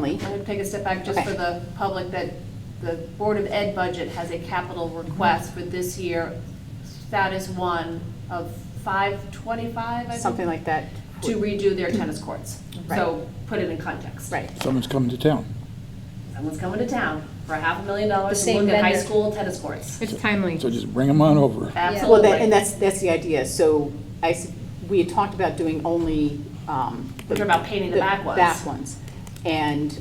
county. I'm going to take a step back just Okay. for the public, that the Board of Ed budget has a capital request for this year, status one of 525, I think, something like that. to redo their tennis courts. So put it in context. Right. Someone's coming to town. Someone's coming to town for a half a million dollars The to same look at high vendor. school tennis courts. It's timely. So just bring them on over. Well, that- and Absolutely. that's, that's the idea. So I, s- we had talked about doing only. um, We're talking about painting the back ones. Back ones. And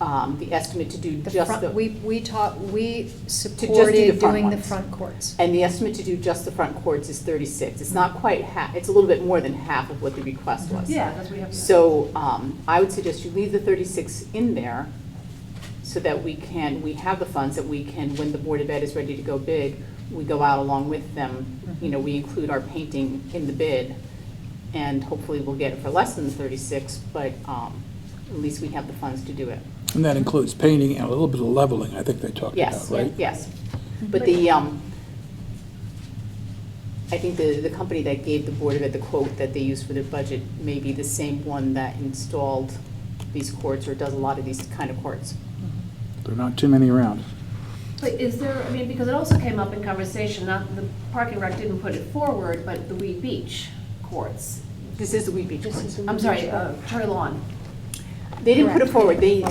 um, the estimate to do The just front, we, the, we taught, we do the supported front doing the ones. front courts. and the estimate to do just the front courts is 36. It's not quite half, it's a little bit more than half of what the request was. Yeah, that's what we have. to do. So um, I would suggest you leave the 36 in there so that we can, we have the funds that we can, when the Board of Ed is ready to go bid, we go out along with them. You know, we include our painting in the bid and hopefully we'll get it for less than the 36, but um, at least we have the funds to do it. And that includes painting and a little bit of leveling, I think they talked about, Yes, right? yes. But the, um, I think the, the company that gave the Board of Ed the quote that they used for their budget may be the same one that installed these courts or does a lot of these kind of courts. There are not too many around. But is there, I mean, because it also came up in conversation, not, the parking rec didn't put it forward, but the Weed Beach courts. This is the Weed Beach courts. I'm sorry, uh, Cherry Lawn. They didn't put it forward, they,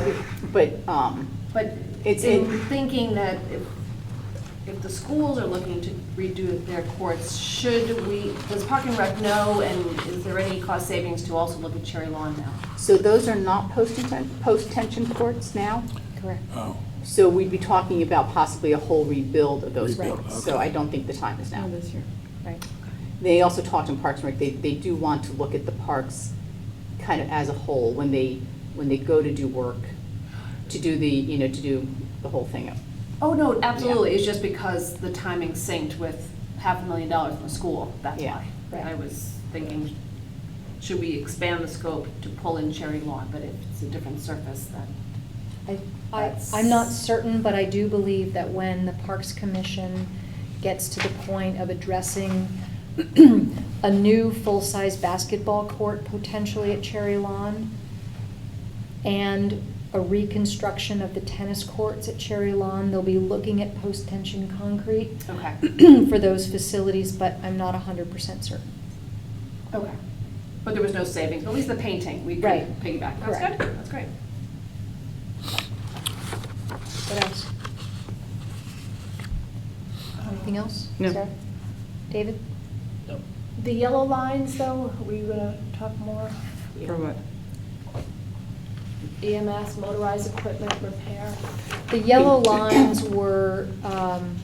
but, um, But It's in in- thinking that if, if the schools are looking to redo their courts, should we, does Park and Rec know, and is there any cost savings to also look at Cherry Lawn now? so those are not post-tension, post-tension courts now? Correct. Oh, So we'd be talking about possibly a whole rebuild of those Rebuild, courts. So okay. I don't think the time is now. this year. Right. They also talked in Parks and Rec, they, they do want to look at the parks kind of as a whole when they, when they go to do work, to do the, you know, to do the whole thing. Oh, no, absolutely, it's just because the timing synced with half a million dollars from the school, that's Yeah. why. I was thinking, should we expand the scope to pull in Cherry Lawn, but if it's a different surface, then. I, I- I'm not certain, but I do believe that when the Parks Commission gets to the point of addressing a new full-size basketball court potentially at Cherry Lawn and a reconstruction of the tennis courts at Cherry Lawn, they'll be looking at post-tension concrete Okay, for those facilities, but I'm not hundred percent certain. okay. But there was no savings, but at least the painting, we could Right. piggyback, that's Correct. good, that's great. What else? Anything else? No. Sarah? David? The yellow lines, though, were you gonna talk more? For what? EMS, E motorized equipment repair? The yellow lines were, um,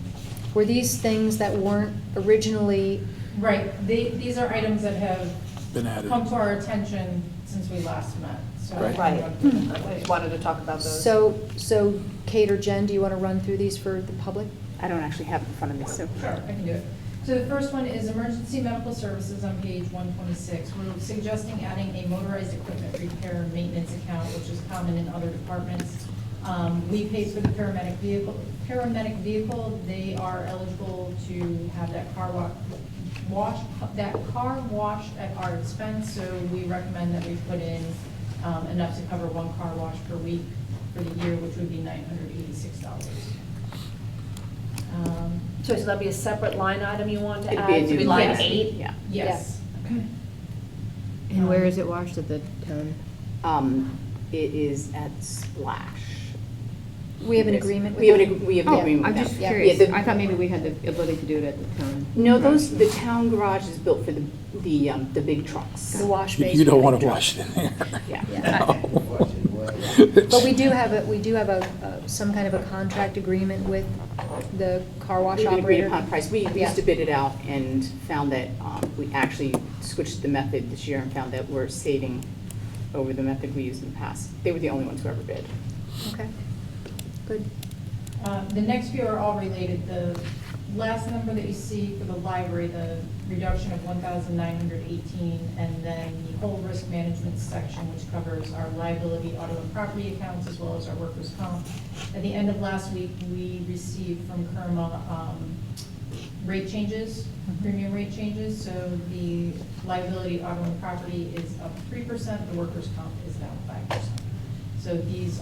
were these things that weren't originally, Right, they, these are items that have been added. come to our attention since we last met, so. Right. I wanted to talk about those. so, so Kate or Jen, do you want to run through these for the public? I don't actually have it in front of me, so. Sure, I can do it. So the first one is emergency medical services on page one twenty-six. We're suggesting adding a motorized equipment repair and maintenance account, which is common in other departments. Um, we pay for the paramedic vehicle, paramedic vehicle, they are eligible to have that car wa- wash, that car washed at our expense, so we recommend that we put in, um, enough to cover one car wash per week for the year, which would be nine hundred eighty-six dollars. Um, So that'd be a separate line item you want Uh, to It'd add? be a So it'd new line line. eight? Yeah. Yes. And where is it washed at the town? Um, it is at Splash. We have an agreement with We have an, them? ag- we have an Oh, agreement with I'm them. just Yeah. curious. Yeah, the- I thought maybe we had the ability to do it at the town. No, those, the town garage is built for the, the, um, the big trucks. The wash You basin? you don't want to wash it in there. Yeah. No. But we do have a, we do have a, uh, some kind of a contract agreement with the car wash We would agree operator? upon price. We Yeah. used to bid it out and found that um, we actually switched the method this year and found that we're saving over the method we used in the past. They were the only ones who ever bid. Okay, good. Um, The next few are all related. The last number that you see for the library, the reduction of 1,918, and then the whole risk management section, which covers our liability, auto and property accounts, as well as our workers' comp. At the end of last week, we received from Kerma um, rate changes, premium rate changes. So the liability, auto and property is up 3%, the workers' comp is down 5%. So these